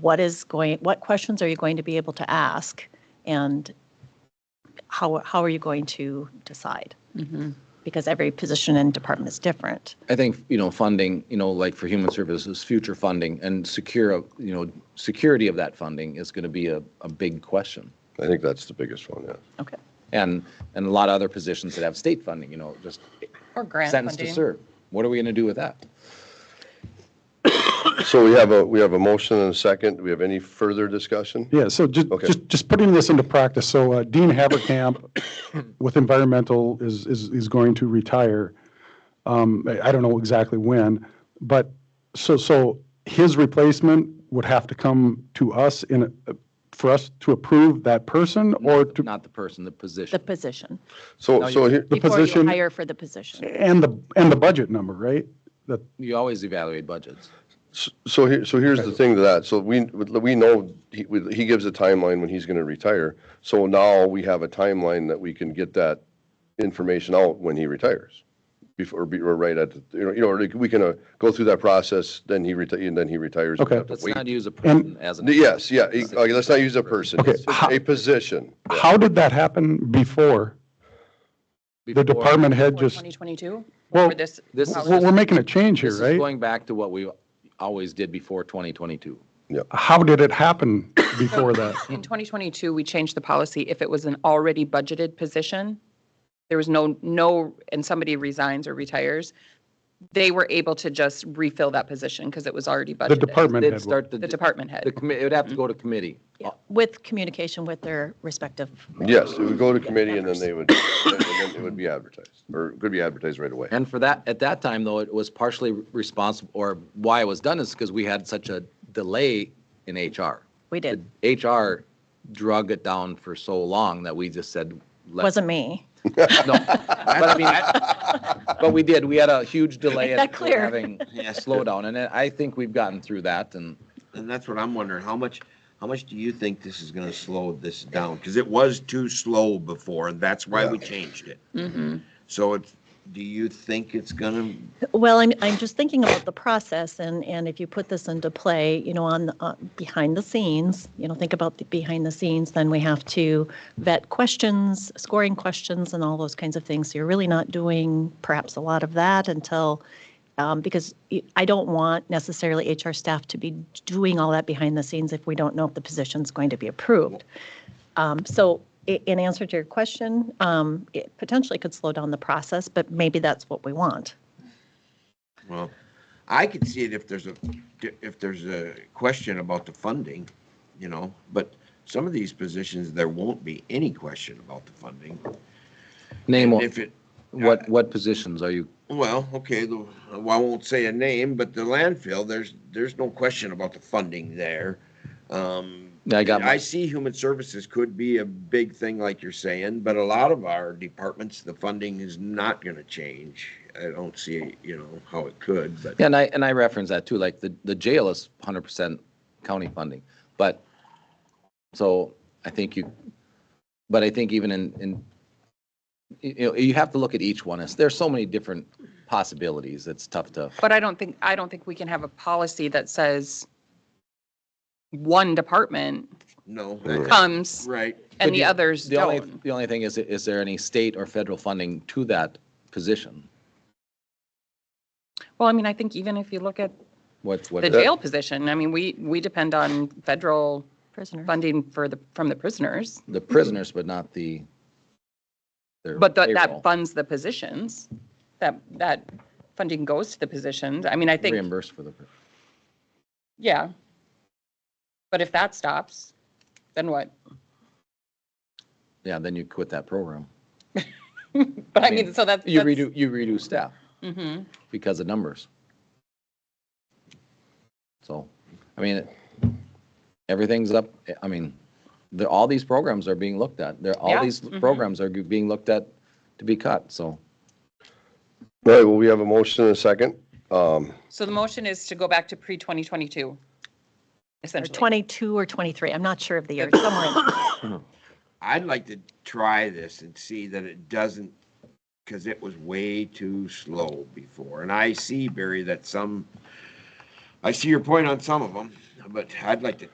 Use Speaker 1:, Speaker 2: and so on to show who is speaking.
Speaker 1: what is going, what questions are you going to be able to ask? And how, how are you going to decide? Because every position and department is different.
Speaker 2: I think, you know, funding, you know, like for human services, future funding and secure, you know, security of that funding is going to be a, a big question.
Speaker 3: I think that's the biggest one, yeah.
Speaker 1: Okay.
Speaker 2: And, and a lot of other positions that have state funding, you know, just
Speaker 4: Or grant
Speaker 2: sentence to
Speaker 4: funding.
Speaker 2: serve. What are we going to do with that?
Speaker 3: So we have a, we have a motion and a second. Do we have any further discussion?
Speaker 5: Yeah, so just,
Speaker 3: Okay.
Speaker 5: just, just putting this into practice, so uh, Dean Haverkamp with environmental is, is, is going to retire. Um, I I don't know exactly when, but, so, so his replacement would have to come to us in, a- for us to approve that person or to,
Speaker 2: Not the person, the
Speaker 1: The
Speaker 2: position.
Speaker 1: position.
Speaker 3: So, so here,
Speaker 5: The
Speaker 1: Before
Speaker 5: position-
Speaker 1: you hire for the position.
Speaker 5: and the, and the budget number, right? That,
Speaker 2: You always evaluate budgets.
Speaker 3: so here, so here's the thing to that. So we, we know, he, we- he gives a timeline when he's going to retire. So now we have a timeline that we can get that information out when he retires. Before, or be- or right at, the- you know, you know, or like, we can uh, go through that process, then he retires, and then he retires. We
Speaker 5: Okay.
Speaker 3: have to
Speaker 2: Let's
Speaker 3: wait.
Speaker 2: not use a person as an.
Speaker 3: Yes, yeah, e- okay, let's not use a person.
Speaker 5: Okay,
Speaker 3: It's
Speaker 5: how-
Speaker 3: A position.
Speaker 5: how did that happen before? The
Speaker 2: before.
Speaker 5: department head
Speaker 4: For
Speaker 5: just,
Speaker 4: 2022?
Speaker 5: Well,
Speaker 4: For this,
Speaker 2: This is-
Speaker 5: we're, we're making a change here,
Speaker 2: This is
Speaker 5: right?
Speaker 2: going back to what we always did before 2022.
Speaker 5: How did it happen before that?
Speaker 4: in 2022, we changed the policy. If it was an already budgeted position, there was no, no, and somebody resigns or retires, they were able to just refill that position because it was already budgeted.
Speaker 5: The department
Speaker 2: They'd
Speaker 5: head. would-
Speaker 2: start the.
Speaker 4: The department
Speaker 2: The
Speaker 4: head.
Speaker 2: committee, it would have to go to committee.
Speaker 1: With communication with their respective.
Speaker 3: Yes, it would go to committee and then they would, and then it would be advertised, or it could be advertised right away.
Speaker 2: And for that, at that time, though, it was partially responsible, or why it was done is because we had such a delay in HR.
Speaker 1: We did.
Speaker 2: HR drug it down for so long that we just said. let-
Speaker 1: Wasn't me.
Speaker 2: No, but I mean, I- but we did, we had a huge delay.
Speaker 1: Make that
Speaker 2: in
Speaker 1: clear.
Speaker 2: Having a slowdown, and I think we've gotten through that, and
Speaker 6: And that's what I'm wondering, how much, how much do you think this is gonna slow this down? Because it was too slow before, and that's why we changed it. So it's, do you think it's gonna,
Speaker 1: Well, I'm, I'm just thinking about the process and, and if you put this into play, you know, on, uh, behind the scenes, you know, think about the behind the scenes, then we have to vet questions, scoring questions and all those kinds of things. So you're really not doing perhaps a lot of that until, um, because y- I don't want necessarily HR staff to be doing all that behind the scenes if we don't know if the position's going to be approved. Um, So i- in answer to your question, um, it potentially could slow down the process, but maybe that's what we want.
Speaker 6: well, I could see it if there's a, if there's a question about the funding, you know, but some of these positions, there won't be any question about the funding.
Speaker 2: name,
Speaker 6: And
Speaker 2: what-
Speaker 6: If it,
Speaker 2: what, what positions are you,
Speaker 6: Well, okay, the, well, I won't say a name, but the landfill, there's, there's no question about the funding there. Um,
Speaker 2: I got my-
Speaker 6: I see human services could be a big thing like you're saying, but a lot of our departments, the funding is not gonna change. I don't see, you know, how it could, but.
Speaker 2: and I, and I reference that too, like the, the jail is hundred percent county funding, but, so I think you, but I think even in, in, you you know, you have to look at each one, It's- there's so many different possibilities, it's tough to.
Speaker 4: But I don't think, I don't think we can have a policy that says one department
Speaker 6: No,
Speaker 4: comes
Speaker 6: right.
Speaker 2: But
Speaker 4: and the
Speaker 2: you-
Speaker 4: others
Speaker 2: The only,
Speaker 4: don't.
Speaker 2: the only thing is, is there any state or federal funding to that position?
Speaker 4: Well, I mean, I think even if you look at
Speaker 2: What's, what,
Speaker 4: the jail position, I mean, we, we depend on federal
Speaker 1: Prisoner.
Speaker 4: funding for the, from the prisoners,
Speaker 2: the prisoners, but not the. their
Speaker 4: but that,
Speaker 2: payroll
Speaker 4: that funds the positions. That, that funding goes to the positions. I mean, I think,
Speaker 2: Reimbursed for the,
Speaker 4: yeah. But if that stops, then what?
Speaker 2: yeah, then you quit that program.
Speaker 4: But I
Speaker 2: mean,
Speaker 4: mean, so that's.
Speaker 2: You
Speaker 4: that's-
Speaker 2: redo, you redo staff
Speaker 4: Mhm.
Speaker 2: because of numbers. So, I mean, everything's up, I mean, the, all these programs are being looked at. They're, all
Speaker 4: Yeah,
Speaker 2: these
Speaker 4: mhm.
Speaker 2: programs are being looked at to be cut, so.
Speaker 3: All right, well, we have a motion and a second. Um,
Speaker 4: So the motion is to go back to pre-2022,
Speaker 1: Or
Speaker 4: essentially.
Speaker 1: 22 or 23, I'm not sure of the year, somewhere. in there.
Speaker 6: I'd like to try this and see that it doesn't, because it was way too slow before. And I see, Barry, that some, I see your point on some of them, but I'd like to